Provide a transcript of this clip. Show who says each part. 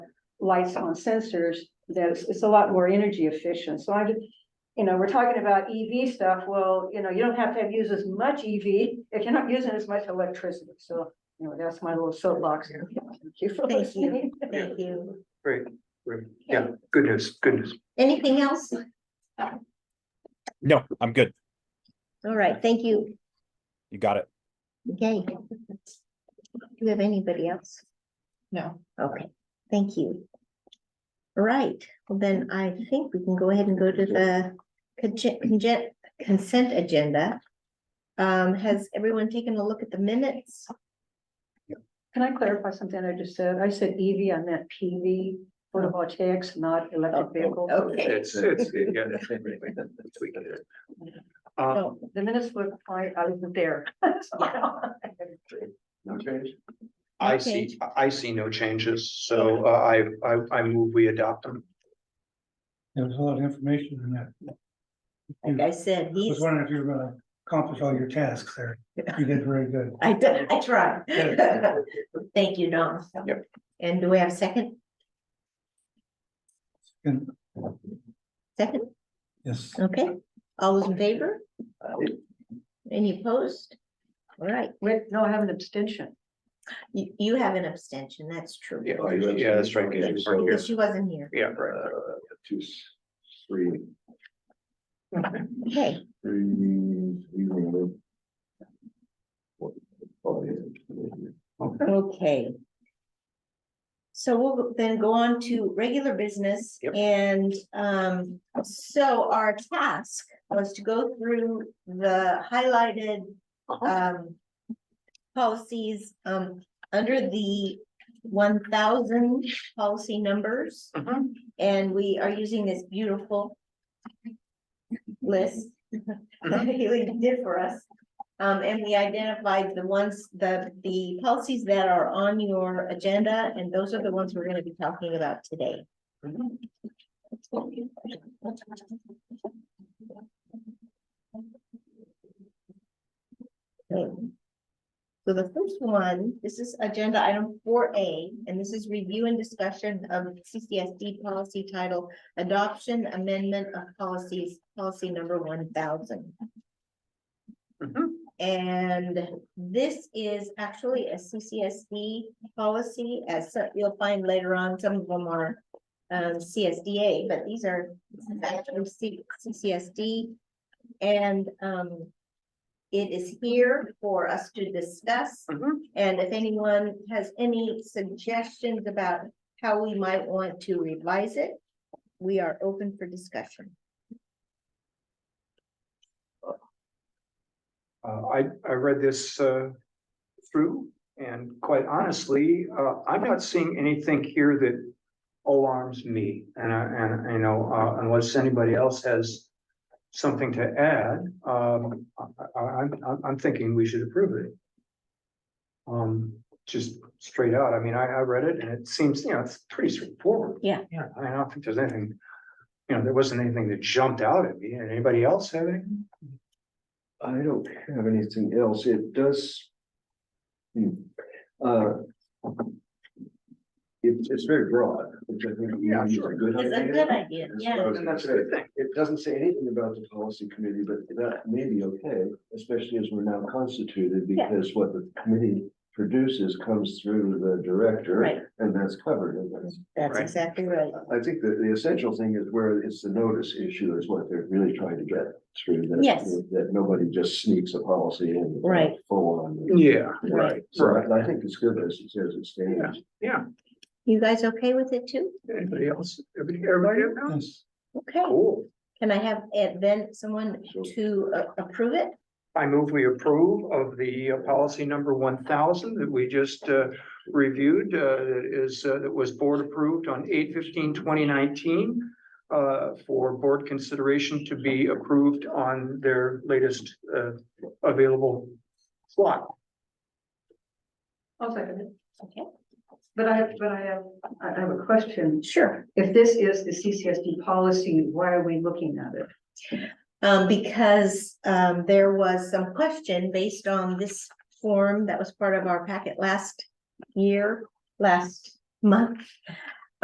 Speaker 1: lights on sensors, that's, it's a lot more energy efficient, so I just. You know, we're talking about EV stuff, well, you know, you don't have to have used as much EV if you're not using as much electricity, so, you know, that's my little soapbox. Thank you for
Speaker 2: Thank you.
Speaker 1: listening.
Speaker 2: Thank you.
Speaker 3: Great, great. Yeah, good news, good news.
Speaker 2: Anything else?
Speaker 4: No, I'm good.
Speaker 2: All right, thank you.
Speaker 4: You got it.
Speaker 2: Okay. Do you have anybody else?
Speaker 5: No.
Speaker 2: Okay, thank you. All right, well then I think we can go ahead and go to the conge- conge- consent agenda. Um, has everyone taken a look at the minutes?
Speaker 1: Can I clarify something I just said? I said EV, I meant PV, photovoltaics, not electric vehicles.
Speaker 2: Okay,
Speaker 3: It's, it's, yeah. that's it, really, that's what it is. Uh,
Speaker 2: so,
Speaker 1: The minutes were, I, I wasn't there.
Speaker 3: No change? I see,
Speaker 2: change.
Speaker 3: I see no changes, so uh, I, I, I move we adopt them.
Speaker 6: There was a lot of information in that.
Speaker 2: like I said,
Speaker 6: I
Speaker 2: he's,
Speaker 6: was wondering if you were gonna accomplish all your tasks there. You did very good.
Speaker 2: I, d- I tried.
Speaker 6: Yeah.
Speaker 2: Thank you, Don.
Speaker 3: Yep.
Speaker 2: And do we have a second?
Speaker 6: And
Speaker 2: Second,
Speaker 6: yes,
Speaker 2: okay, all those in favor? Any opposed? All right,
Speaker 1: Wait, no, I have an abstention.
Speaker 2: you, you have an abstention, that's true.
Speaker 3: Yeah, yeah, that's right. 'cause you weren't here.
Speaker 2: Because she wasn't here.
Speaker 3: Yeah, right.
Speaker 7: two, three,
Speaker 2: Okay,
Speaker 7: three, zero. Oh, yeah.
Speaker 2: okay. So we'll then go on to regular business
Speaker 3: Yep.
Speaker 2: and um, so our task was to go through the highlighted um. Policies um, under the one thousand policy numbers.
Speaker 3: Mhm.
Speaker 2: And we are using this beautiful list that Haley did for us. Um, and we identified the ones, the, the policies that are on your agenda, and those are the ones we're gonna be talking about today. Okay. So the first one, this is agenda item four A, and this is review and discussion of CCSD policy title Adoption Amendment of Policies, Policy Number one thousand.
Speaker 3: Mhm.
Speaker 2: And this is actually a CCSD policy, as so- you'll find later on, some of them are um, CSDA, but these are this is actually C- CCSD. And um, it is here for us to discuss.
Speaker 3: Mhm.
Speaker 2: And if anyone has any suggestions about how we might want to revise it, we are open for discussion.
Speaker 3: Uh, I, I read this, uh, through and quite honestly, uh, I'm not seeing anything here that alarms me. And I, and I know, uh, unless anybody else has something to add, um, I, I, I'm, I'm- I'm thinking we should approve it. Um, just straight out. I mean, I, I read it and it seems, you know, it's pretty straightforward.
Speaker 2: Yeah.
Speaker 3: Yeah, I mean, I don't think there's anything, you know, there wasn't anything that jumped out at me. Anybody else have anything?
Speaker 7: I don't have anything else. It does. Hmm. Uh. It's, it's very broad, which I think.
Speaker 3: Yeah,
Speaker 7: is a
Speaker 3: sure.
Speaker 7: Good
Speaker 2: It's a
Speaker 7: idea.
Speaker 2: good idea,
Speaker 7: That's
Speaker 2: yeah.
Speaker 7: what I was
Speaker 3: And
Speaker 7: gonna
Speaker 3: that's a good
Speaker 7: say.
Speaker 3: thing.
Speaker 7: It doesn't say anything about the policy committee, but that may be okay, especially as we're now constituted,
Speaker 2: Yeah.
Speaker 7: because what the committee produces comes through the director.
Speaker 2: Right.
Speaker 7: And that's covered in this.
Speaker 2: That's
Speaker 3: Right.
Speaker 2: exactly right.
Speaker 7: I think that the essential thing is where it's the notice issue is what they're really trying to get through. that-
Speaker 2: Yes.
Speaker 7: That nobody just sneaks a policy in.
Speaker 2: Right.
Speaker 7: Full on.
Speaker 3: Yeah,
Speaker 2: Right.
Speaker 7: So I I think it's good as it says it stands.
Speaker 3: yeah.
Speaker 2: You guys okay with it too?
Speaker 3: Anybody else? Everybody, everybody have comments?
Speaker 6: yes.
Speaker 2: Okay,
Speaker 3: Cool.
Speaker 2: can I have uh, then someone
Speaker 7: Sure.
Speaker 2: to uh, approve it?
Speaker 3: I move we approve of the uh, policy number one thousand that we just uh, reviewed, uh, that is, uh, that was board approved on 2019 uh, for board consideration to be approved on their latest uh, available slot.
Speaker 1: I'll second it.
Speaker 2: Okay.
Speaker 1: But I have, but I have, I I have a question.
Speaker 2: Sure.
Speaker 1: If this is the CCSD policy, why are we looking at it?
Speaker 2: Um, because, um, there was some question based on this form that was part of our packet last year, last month.